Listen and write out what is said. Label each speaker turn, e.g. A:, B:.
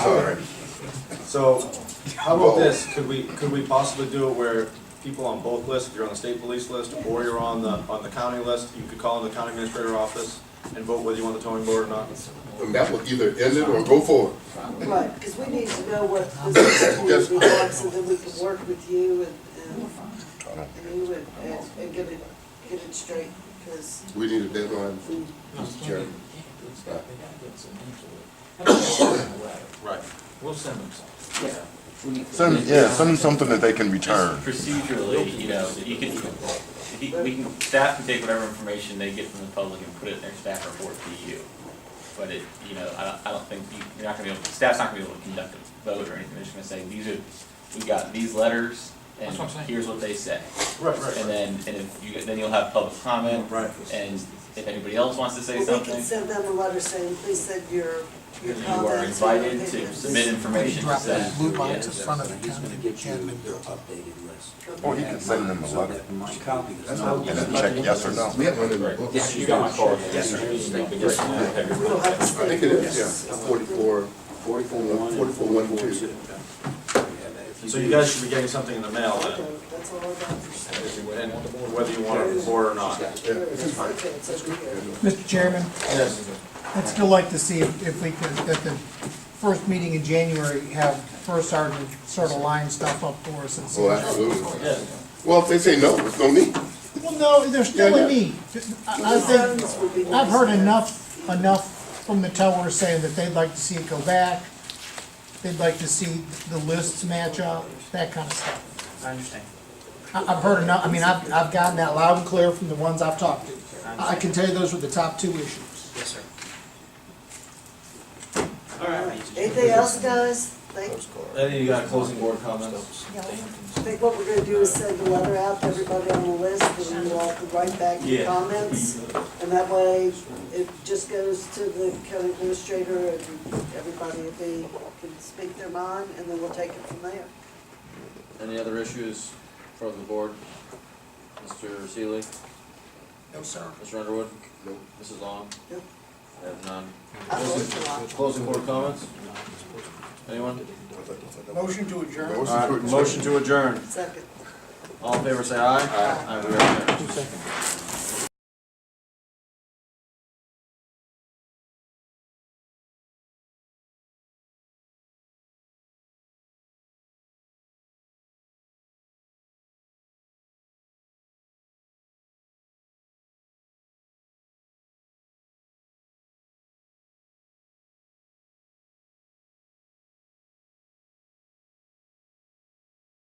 A: heard. So, how about this, could we, could we possibly do it where people on both lists, if you're on the state police list or you're on the, on the county list, you could call in the county administrator office and vote whether you want the towing board or not?
B: And that will either end it or go forward.
C: Right, because we need to know what the situation is, so then we can work with you and, and, and you and, and- and get it, get it straight, because
B: We need a deadline, Mr. Chairman.
A: Right.
D: We'll send them some.
E: Send, yeah, send them something that they can return.
F: Procedurally, you know, you can, if you- we can, staff can take whatever information they get from the public and put it in their staff report to you. But it, you know, I don't, I don't think, you- you're not gonna be able, staff's not gonna be able to conduct a vote or anything, they're just gonna say, these are, we got these letters, and
D: That's what I'm saying.
F: here's what they say.
A: Right, right,
F: And
A: right.
F: then, and if you, then you'll have public comment,
A: Right.
F: and if anybody else wants to say
C: we can
F: something,
C: send them a letter saying, please send your, your
F: you are
C: comments. or your
F: invited to
C: opinions."
F: submit information to
G: Drop the
F: staff.
G: blue
F: Yeah.
G: box in front of the
H: He's gonna
G: county
H: get you
G: and
H: the
G: then build up.
H: updated list.
B: Oh,
E: Or he can send them a letter
H: Copy this.
E: and then check yes or no.
B: We have one in the book.
F: Yeah, you got my card.
H: Yes, sir.
C: We'll have to
B: I think it is, yeah, forty-four,
H: Forty-four one.
B: Forty-four one two.
A: So you guys should be getting something in the mail then,
C: Okay, that's all I got.
A: if you- and whether you want to report or not.
B: yeah, this is fine.
C: Okay, it's over here.
G: Mr. Chairman, I'd still like to see if if we could, at the first meeting in January, have First Sergeant sort of line stuff up for us and see.
B: Oh, absolutely. Well, if they say no, there's no need.
G: Well, no, they're still
B: Yeah,
G: in
B: yeah.
G: need. I I think,
C: Zones would be
G: I've heard
C: nice.
G: enough, enough from the towers saying that they'd like to see it go back. They'd like to see the lists match up, that kind of stuff.
D: I understand.
G: I, I've heard enough, I mean, I've, I've gotten that loud and clear from the ones I've talked to. I I can tell you those were the top two issues.
D: Yes, sir.
C: Anything else, guys? Like,
A: Eddie, you got uh, closing board comments?
C: I think what we're gonna do is send a letter out to everybody on the list, and we'll all can write back your
F: Yeah.
C: comments. And that way, it just goes to the county administrator, and everybody, if they can speak their mind, and then we'll take it from there.
I: Any other issues from the board? Mr. Seeley?
G: No, sir.
I: Mr. Underwood? Nope. Mrs. Long?
C: Nope.
I: I have none.
C: I vote for it.
I: Closing board comments? Anyone?
G: Motion to adjourn.
I: Motion to adjourn.
C: Second.
I: All in favor, say aye. Aye. we are adjourned.